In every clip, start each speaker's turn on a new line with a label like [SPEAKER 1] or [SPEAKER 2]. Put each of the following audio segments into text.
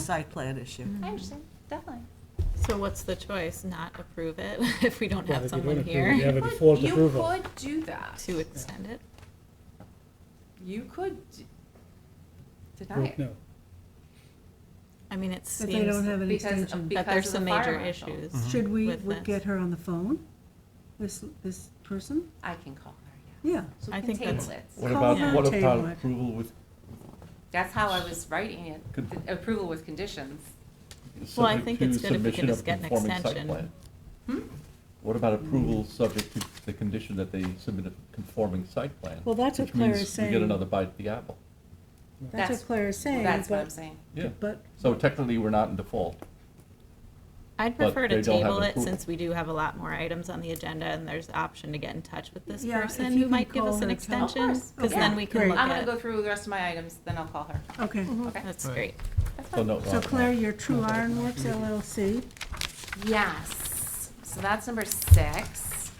[SPEAKER 1] site plan issue.
[SPEAKER 2] I
[SPEAKER 3] Mm.
[SPEAKER 2] understand, definitely.
[SPEAKER 3] So what's the choice? Not approve it if we don't
[SPEAKER 4] Well,
[SPEAKER 3] have
[SPEAKER 4] if you don't
[SPEAKER 3] someone
[SPEAKER 4] approve it, You
[SPEAKER 3] here
[SPEAKER 4] have a
[SPEAKER 2] But
[SPEAKER 4] default approval.
[SPEAKER 2] You could do that.
[SPEAKER 3] to extend it?
[SPEAKER 2] You could d- deny
[SPEAKER 4] Vote
[SPEAKER 2] it.
[SPEAKER 4] No,
[SPEAKER 3] I mean, it
[SPEAKER 5] But they don't
[SPEAKER 3] seems
[SPEAKER 5] have any
[SPEAKER 2] Because,
[SPEAKER 5] extension.
[SPEAKER 3] that
[SPEAKER 2] because
[SPEAKER 3] there's
[SPEAKER 2] of the
[SPEAKER 3] some
[SPEAKER 2] fire
[SPEAKER 3] major
[SPEAKER 2] marshal.
[SPEAKER 3] issues.
[SPEAKER 4] Mm-hmm.
[SPEAKER 5] Should we
[SPEAKER 3] with
[SPEAKER 5] would
[SPEAKER 3] this.
[SPEAKER 5] get her on the phone? This, this person?
[SPEAKER 2] I can call her, yeah.
[SPEAKER 5] Yeah.
[SPEAKER 2] So
[SPEAKER 3] I
[SPEAKER 2] we can
[SPEAKER 3] think that's-
[SPEAKER 2] table it.
[SPEAKER 6] What
[SPEAKER 5] Call
[SPEAKER 3] her
[SPEAKER 6] about, what
[SPEAKER 5] table
[SPEAKER 6] about
[SPEAKER 5] it.
[SPEAKER 6] approval with?
[SPEAKER 2] That's how I was writing it,
[SPEAKER 6] Good.
[SPEAKER 2] th- approval with conditions.
[SPEAKER 3] Well, I
[SPEAKER 6] subject
[SPEAKER 3] think
[SPEAKER 6] to
[SPEAKER 3] it's good if we
[SPEAKER 6] submission
[SPEAKER 3] can
[SPEAKER 6] of
[SPEAKER 3] just get an
[SPEAKER 6] conforming site
[SPEAKER 3] extension.
[SPEAKER 6] plan?
[SPEAKER 2] Hmm?
[SPEAKER 6] What about approval subject to the condition that they submit a conforming site plan?
[SPEAKER 5] Well, that's what
[SPEAKER 6] Which
[SPEAKER 5] Claire
[SPEAKER 6] means
[SPEAKER 5] is
[SPEAKER 6] You get
[SPEAKER 5] saying.
[SPEAKER 6] another bite at the apple.
[SPEAKER 5] That's
[SPEAKER 2] That's-
[SPEAKER 5] what Claire is saying,
[SPEAKER 2] That's what I'm
[SPEAKER 5] but,
[SPEAKER 2] saying.
[SPEAKER 6] Yeah,
[SPEAKER 5] but
[SPEAKER 6] so technically, we're not in default.
[SPEAKER 3] I'd
[SPEAKER 6] But
[SPEAKER 3] prefer to
[SPEAKER 6] they don't have
[SPEAKER 3] table
[SPEAKER 6] an
[SPEAKER 3] it
[SPEAKER 6] approval.
[SPEAKER 3] since we do have a lot more items on the agenda and there's the option to get in touch with this
[SPEAKER 5] Yeah, if
[SPEAKER 3] person
[SPEAKER 5] you
[SPEAKER 3] who
[SPEAKER 5] can
[SPEAKER 3] might give
[SPEAKER 5] call
[SPEAKER 3] us an
[SPEAKER 5] her, tell-
[SPEAKER 2] Of
[SPEAKER 3] extension.
[SPEAKER 2] course,
[SPEAKER 3] Because
[SPEAKER 2] okay.
[SPEAKER 3] then we can
[SPEAKER 5] Great.
[SPEAKER 3] look
[SPEAKER 2] I'm gonna
[SPEAKER 3] at
[SPEAKER 2] go
[SPEAKER 3] it.
[SPEAKER 2] through the rest of my items, then I'll call her.
[SPEAKER 5] Okay,
[SPEAKER 2] Okay.
[SPEAKER 3] That's
[SPEAKER 4] Right.
[SPEAKER 3] great.
[SPEAKER 2] That's
[SPEAKER 6] So
[SPEAKER 2] fine.
[SPEAKER 6] no. uh,
[SPEAKER 5] so
[SPEAKER 6] no,
[SPEAKER 5] Claire,
[SPEAKER 6] no.
[SPEAKER 5] your True Iron Works LLC,
[SPEAKER 2] Yes, so that's number six.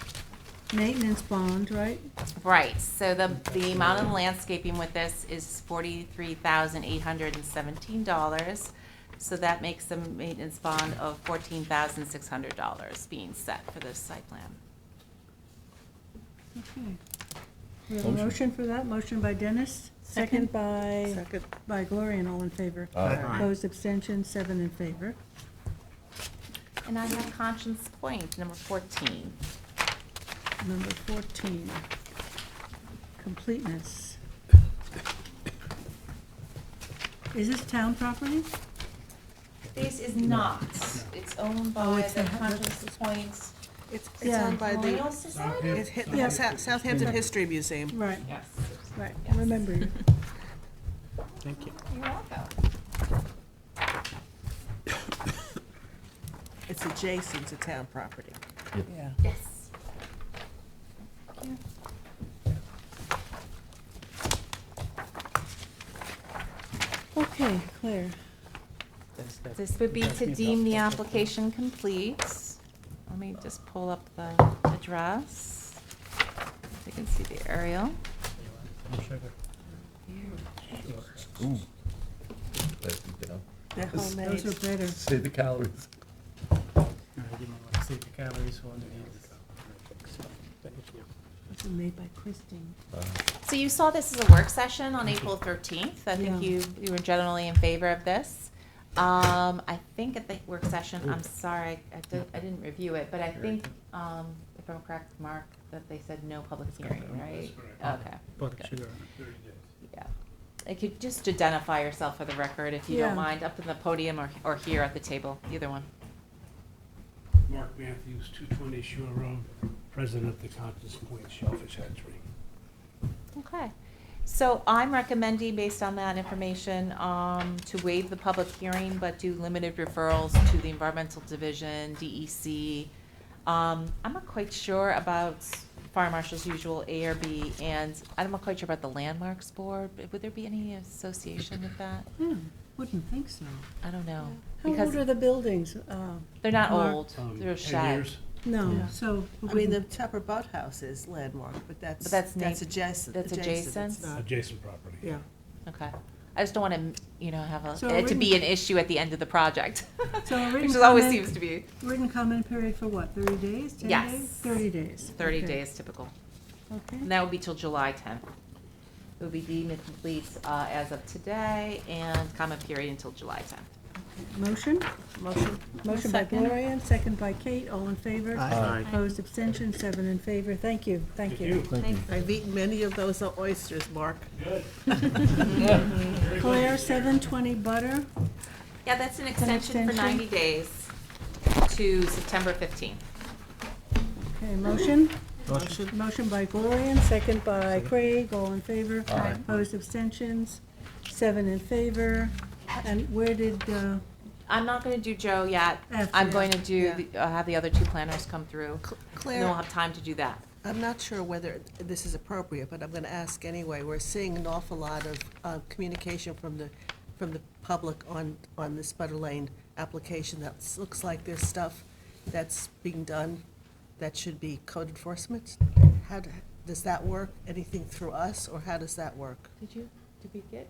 [SPEAKER 5] maintenance bond, right?
[SPEAKER 2] Right, so the, the amount of landscaping with this is forty-three thousand eight hundred and seventeen dollars. So that makes the maintenance bond of fourteen thousand six hundred dollars being set for this site plan.
[SPEAKER 5] Okay. We have a
[SPEAKER 6] Motion.
[SPEAKER 5] motion for that, motion by Dennis, second by, by Gloria, and all in favor.
[SPEAKER 6] Uh,
[SPEAKER 5] Opposed, abstention, seven in favor.
[SPEAKER 2] And I have Conscience Point, number fourteen.
[SPEAKER 5] Number fourteen, completeness. Is this town property?
[SPEAKER 2] This is not, it's owned
[SPEAKER 5] Oh,
[SPEAKER 2] by
[SPEAKER 5] it's
[SPEAKER 2] the
[SPEAKER 5] the-
[SPEAKER 2] Conscience Point
[SPEAKER 7] It's, it's
[SPEAKER 5] Yeah.
[SPEAKER 7] owned by
[SPEAKER 2] Colonial
[SPEAKER 7] the,
[SPEAKER 2] Society?
[SPEAKER 7] it's hit- the Sa- Southampton History Museum.
[SPEAKER 5] Right,
[SPEAKER 2] Yes.
[SPEAKER 5] right,
[SPEAKER 2] Yes.
[SPEAKER 5] remember you.
[SPEAKER 4] thank you.
[SPEAKER 2] You're welcome.
[SPEAKER 7] It's adjacent to town property.
[SPEAKER 2] Yes.
[SPEAKER 5] Okay, Claire.
[SPEAKER 2] This would be to deem the application complete. Let me just pull up the address. So you can see the aerial.
[SPEAKER 6] ooh. That's, you know,
[SPEAKER 7] They're
[SPEAKER 5] Those
[SPEAKER 7] homemade.
[SPEAKER 5] are better.
[SPEAKER 6] Say the calories.
[SPEAKER 5] Those are made by Christine.
[SPEAKER 2] So you saw this as a work session on April 13th. I think
[SPEAKER 5] Yeah.
[SPEAKER 2] you, you were generally in favor of this. Um, I think at the work session, I'm sorry, I didn't, I didn't review it, but I think, um, if I'm correct, Mark, that they said no public hearing, right? Okay. good. Yeah. I could just identify yourself for the record, if you
[SPEAKER 5] Yeah.
[SPEAKER 2] don't mind, up in the podium or, or here at the table, either one.
[SPEAKER 8] Mark Matthews, 220 Shore Road, president of the Conscious Point Shellfish Hatchery.
[SPEAKER 2] Okay. So I'm recommending, based on that information, um, to waive the public hearing, but do limited referrals to the Environmental Division, DEC. Um, I'm not quite sure about Fire Marshal's usual ARB, and I'm not quite sure about the Landmarks Board. but Would there be any association with that?
[SPEAKER 5] Yeah, wouldn't think so.
[SPEAKER 2] I don't know.
[SPEAKER 5] How old are
[SPEAKER 2] Because
[SPEAKER 5] the buildings? Uh,
[SPEAKER 2] they're not
[SPEAKER 5] Mark?
[SPEAKER 2] old,
[SPEAKER 8] Um,
[SPEAKER 2] they're
[SPEAKER 8] 10
[SPEAKER 2] shed.
[SPEAKER 8] years.
[SPEAKER 5] No,
[SPEAKER 6] Yeah.
[SPEAKER 5] so.
[SPEAKER 7] I mean, the Tupper Boathouse is landmark, but that's,
[SPEAKER 2] that's neigh-
[SPEAKER 7] that's adjacent.
[SPEAKER 2] that's adjacent?
[SPEAKER 7] It's not,
[SPEAKER 8] Adjacent property.
[SPEAKER 7] yeah.
[SPEAKER 2] Okay. I just don't want to, you know, have
[SPEAKER 5] So
[SPEAKER 2] a, it to be an issue at the end of the project,
[SPEAKER 5] So a
[SPEAKER 2] which
[SPEAKER 5] written
[SPEAKER 2] always
[SPEAKER 5] comment-
[SPEAKER 2] seems to be
[SPEAKER 5] Written comment period for what, thirty days, ten
[SPEAKER 2] Yes.
[SPEAKER 5] days? Thirty days.
[SPEAKER 2] 30
[SPEAKER 5] Okay.
[SPEAKER 2] days typical.
[SPEAKER 5] Okay.
[SPEAKER 2] And that would be till July 10th. It would be deemed complete uh, as of today and comment period until July 10th.
[SPEAKER 5] Motion?
[SPEAKER 7] Motion?
[SPEAKER 5] Motion by
[SPEAKER 3] Second.
[SPEAKER 5] Gloria, and second by Kate, all in favor?
[SPEAKER 6] Aye.
[SPEAKER 5] Opposed, abstention, seven in favor. Thank you, thank you.
[SPEAKER 6] Thank you.
[SPEAKER 7] I've eaten many of those oysters, Mark.
[SPEAKER 5] Claire, seven twenty Butter,
[SPEAKER 2] Yeah, that's an extension for
[SPEAKER 5] extension?
[SPEAKER 2] 90 days to September 15th.
[SPEAKER 5] okay, motion?
[SPEAKER 7] Motion.
[SPEAKER 5] Motion by Gloria, and second by Craig, all in favor?
[SPEAKER 6] Aye.
[SPEAKER 5] Opposed, abstentions, seven in favor. And where did, uh,
[SPEAKER 2] I'm not going to do Joe yet. I'm
[SPEAKER 5] After.
[SPEAKER 2] going to do,
[SPEAKER 7] Yeah.
[SPEAKER 2] the- uh, have the other two planners come through. And
[SPEAKER 7] Cl-
[SPEAKER 2] then we'll
[SPEAKER 7] Claire,
[SPEAKER 2] have time to do that.
[SPEAKER 7] I'm not sure whether this is appropriate, but I'm gonna ask anyway. We're seeing an awful lot of, uh communication from the, from the public on, on this Butter Lane application that s- looks like there's stuff that's being done that should be code enforcement. How, do- does that work? Anything through us, or how does that work?
[SPEAKER 2] Did you, did we get?